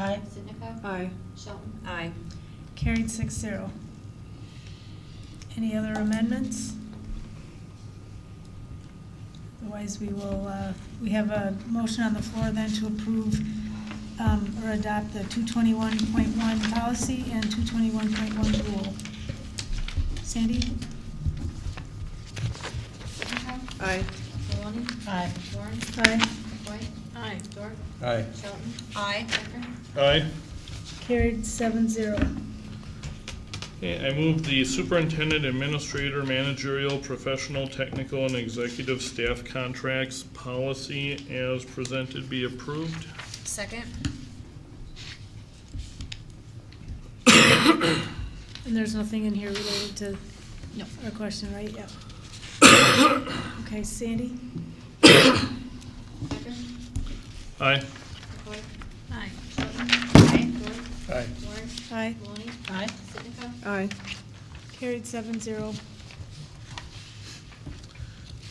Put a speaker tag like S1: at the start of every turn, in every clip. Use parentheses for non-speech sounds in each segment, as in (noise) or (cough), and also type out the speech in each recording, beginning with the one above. S1: Aye. Sitnikow?
S2: Aye.
S1: Shelton?
S3: Aye.
S4: Carried six zero. Any other amendments? Otherwise, we will, uh, we have a motion on the floor then to approve um, or adopt the 221.1 policy and 221.1 rule. Sandy?
S1: Sitnikow?
S2: Aye.
S1: Maloney?
S4: Aye.
S1: Warren?
S4: Aye.
S1: White?
S3: Aye.
S1: Dorf?
S5: Aye.
S1: Shelton?
S3: Aye.
S1: Tucker?
S5: Aye.
S4: Carried seven zero.
S5: Okay, I move the superintendent administrator managerial professional technical and executive staff contracts policy as presented be approved.
S3: Second?
S4: And there's nothing in here related to
S3: No.
S4: our question, right? Yep. (coughs) Okay, Sandy?
S1: Tucker?
S5: Aye.
S1: McCoy?
S3: Aye.
S1: Shelton? Aye. Dorf?
S5: Aye.
S1: Warren?
S4: Aye.
S1: Maloney?
S3: Aye.
S1: Sitnikow?
S2: Aye.
S4: Carried seven zero.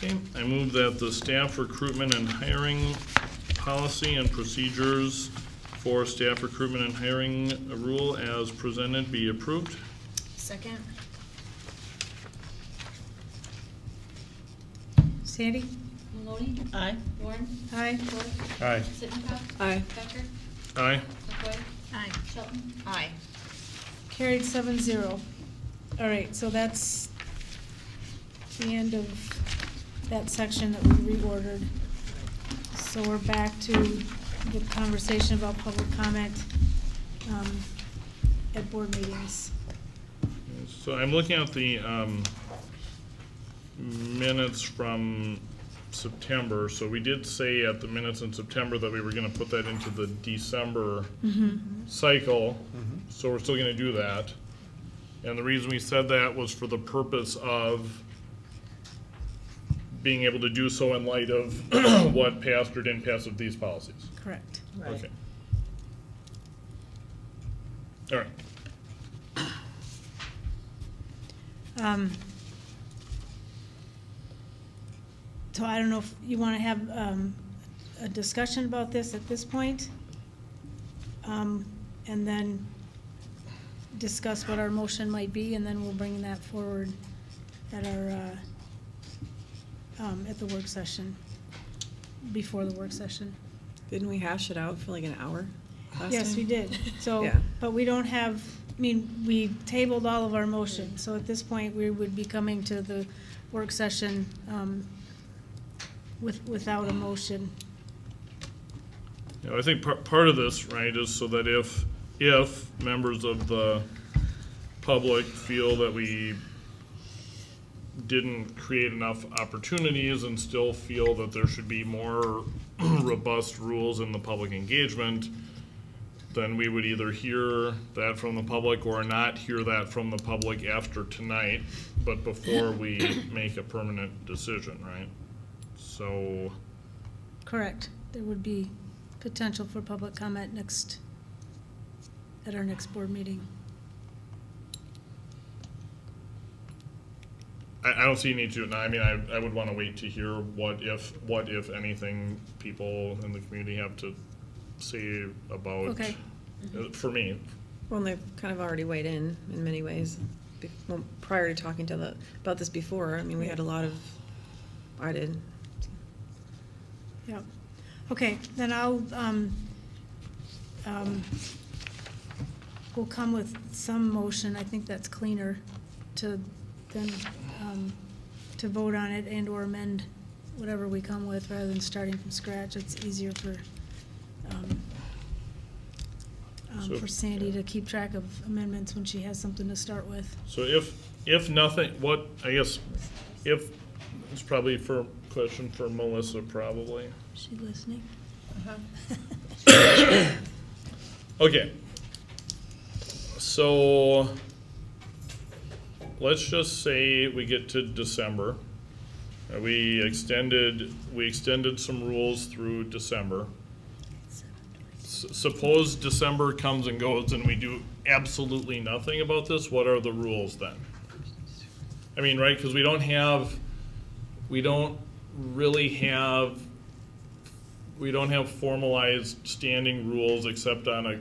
S5: Okay, I move that the staff recruitment and hiring policy and procedures for staff recruitment and hiring rule as presented be approved.
S3: Second?
S4: Sandy?
S1: Maloney?
S3: Aye.
S1: Warren?
S4: Aye.
S1: Dorf?
S5: Aye.
S1: Sitnikow?
S2: Aye.
S1: Tucker?
S5: Aye.
S1: McCoy?
S3: Aye.
S1: Shelton?
S3: Aye.
S4: Carried seven zero. All right, so that's the end of that section that we reordered. So we're back to the conversation about public comment um, at board meetings.
S5: So I'm looking at the um, minutes from September. So we did say at the minutes in September that we were going to put that into the December cycle. So we're still going to do that. And the reason we said that was for the purpose of being able to do so in light of (clears throat) what passed or didn't pass of these policies.
S4: Correct.
S5: Okay. All right.
S4: Um, So I don't know if you want to have um, a discussion about this at this point? um, And then discuss what our motion might be, and then we'll bring that forward at our, uh, um, at the work session, before the work session.
S2: Didn't we hash it out for like an hour last
S4: Yes,
S2: time?
S4: we did. So,
S2: Yeah.
S4: but we don't have, I mean, we tabled all of our motions, so at this point, we would be coming to the work session um, with, without a motion.
S5: You know, I think par- part of this, right, is so that if, if members of the public feel that we didn't create enough opportunities and still feel that there should be more (clears throat) robust rules in the public engagement, then we would either hear that from the public or not hear that from the public after tonight, but before we make a permanent decision, right? So,
S4: Correct. There would be potential for public comment next, at our next board meeting.
S5: I, I don't see any to, no, I mean, I, I would wanna wait to hear what if, what if anything people in the community have to say about.
S4: Okay.
S5: uh, For me,
S2: Well, they've kind of already weighed in in many ways. Be- well, Prior to talking to the, about this before, I mean, we had a lot of, I did.
S4: Yep. Okay, then I'll, um, um, we'll come with some motion, I think that's cleaner, to then, um, to vote on it and/or amend whatever we come with, rather than starting from scratch. It's easier for, um, um,
S5: So-
S4: for Sandy to keep track of amendments when she has something to start with.
S5: so if, if nothing, what, I guess, if, it's probably for, question for Melissa probably.
S4: Is she listening?
S5: Okay. So, let's just say we get to December. Uh, We extended, we extended some rules through December. S- Suppose December comes and goes and we do absolutely nothing about this, what are the rules then? I mean, right, because we don't have, we don't really have we don't have formalized standing rules except on a